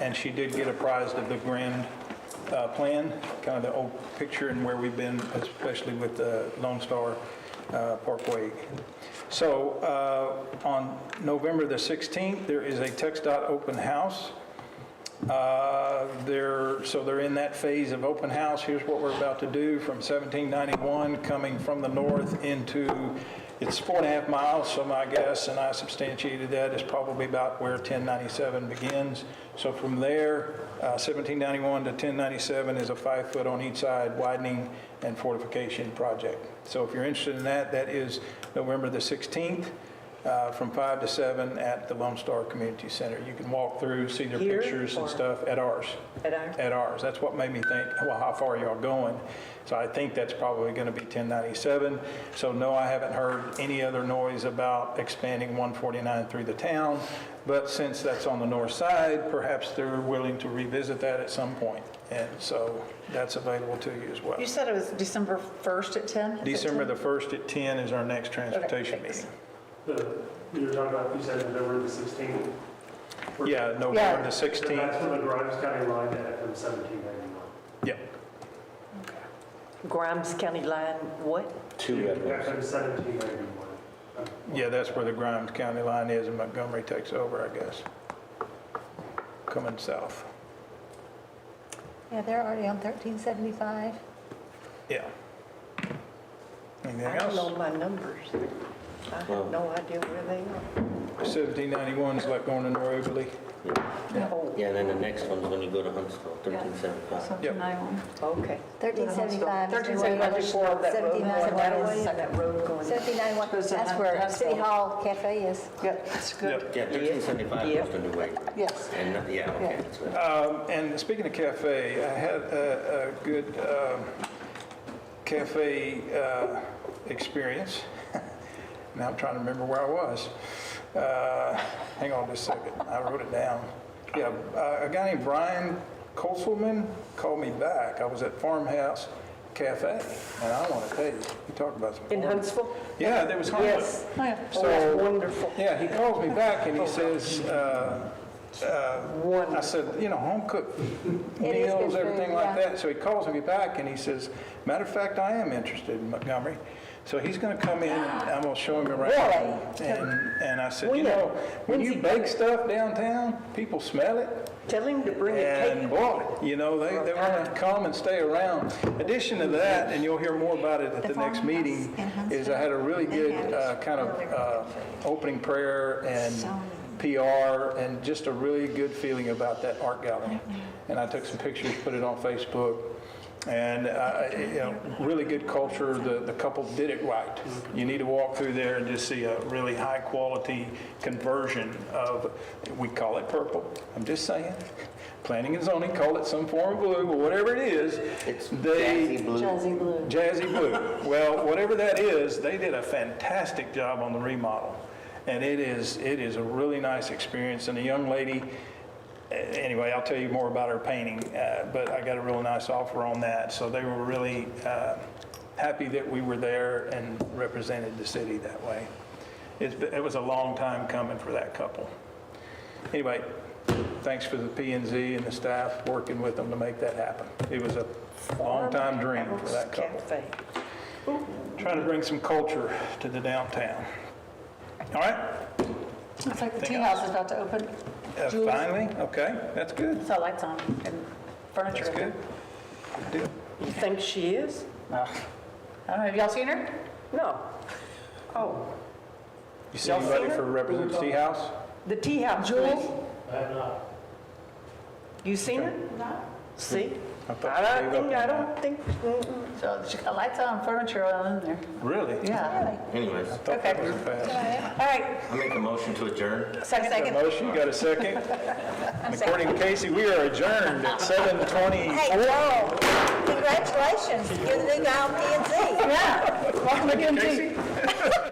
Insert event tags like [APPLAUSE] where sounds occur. and she did get apprised of the grand uh, plan, kind of the old picture and where we've been, especially with the Lone Star uh, Parkway. So uh, on November the 16th, there is a Text dot open house. Uh, They're, so they're in that phase of open house. Here's what we're about to do from 1791, coming from the north into, it's four and a half miles, so my guess, and I substantiated that, is probably about where 1097 begins. So from there, uh, 1791 to 1097 is a five-foot on each side widening and fortification project. So if you're interested in that, that is November the 16th uh, from 5 to 7 at the Lone Star Community Center. You can walk through, see their Here pictures and or- stuff at ours, At ours? at ours. That's what made me think, well, how far are y'all going? So I think that's probably going to be 1097. So no, I haven't heard any other noise about expanding 149 through the town, but since that's on the north side, perhaps they're willing to revisit that at some point. And so that's available to you as well. You said it was December 1st at 10? Is it December 10? the 1st at 10 is our next transportation thanks. meeting. The, you were talking about, you said November the 16th? Yeah, Yeah. November the So 16th. That's when the Grimes County line at from 1791. Yeah. Grimes County line, what? Two At bedrooms. from 1791. Yeah, that's where the Grimes County line is, and Montgomery takes over, I guess. Coming south. Yeah, they're already on 1375. Yeah. Anything I don't know else? my numbers. I have no idea where they 1791 is like going to Norberly. are. Oh, No. Yeah, and then the next one's when you go to Huntsville, thirteen seventy-five. Yep. Okay. 1375. Thirteen seventy-five is where that road, that was Seventeen that road going. ninety-one. Goes to that's where Huntsville. City Hall Cafe is. Yeah, that's Yep. good. Yeah, thirteen seventy-five Yep. goes to New Waverly. Yes. And, not- yeah, okay, that's right. Um, And speaking of cafe, I had a, a good um, cafe uh, experience. [LAUGHS] Now I'm trying to remember where I was. Uh, Hang on just a second, I wrote it down. Yeah, uh, a guy named Brian Koselman called me back. I was at Farmhouse Cafe, and I want to tell you, you talk about some... In farm- Huntsville? Yeah, there was Huntsville. Yes. Oh, So- that's wonderful. Yeah, he calls me back and he says, uh, uh, I said, you know, home cooked It is good meals, everything food, like yeah. that. So he calls me back and he says, matter of fact, I am interested in Montgomery. So he's going to come in and I'm going to show him around. And, and I said, you When? know, when When's you he bake coming?" stuff downtown, people smell it. Tell him to bring a And cake. boy, you know, they, they want to come and stay around. Addition to that, and you'll hear more about it at the next meeting, is I had a really good uh, kind of uh, opening prayer and PR and just a really good feeling about that art gallery. And I took some pictures, put it on Facebook. And, uh, you know, really good culture, the, the couple did it right. You need to walk through there and just see a really high-quality conversion of, we call it purple, I'm just saying. Planning and zoning call it some form of blue, but whatever it is, It's they, jazzy blue. Jazzy Blue. Jazzy Blue. Well, whatever that is, they did a fantastic job on the remodel. And it is, it is a really nice experience. And the young lady, eh, anyway, I'll tell you more about her painting, uh, but I got a real nice offer on that. So they were really uh, happy that we were there and represented the city that way. It's, it was a long time coming for that couple. Anyway, thanks for the P and Z and the staff working with them to make that happen. It was a long time dream for that couple Cafe. trying to bring some culture to the downtown. All right, It's like the Anything tea else? house is about to open. uh, Julie? finally, okay, that's good, It's all lights on and furniture. that's good. Good deal. You think she is? I don't know, have y'all seen her? No. Oh, You see anybody for Representative Seahouse? the tea house. Jules? I have not. You seen it? No. See? I I thought she don't gave up think, I on that. don't think, mm-mm. So she's got lights on, furniture all in there. Really? Yeah. Anyways, Thought that was fast. All right, I make a motion to adjourn. Got a second. motion, got a [LAUGHS] second? According to Casey, we are adjourned at 7:20. Hey, Joel, congratulations, you're the new guy on P and Z. Yeah. Welcome again, Casey? tea.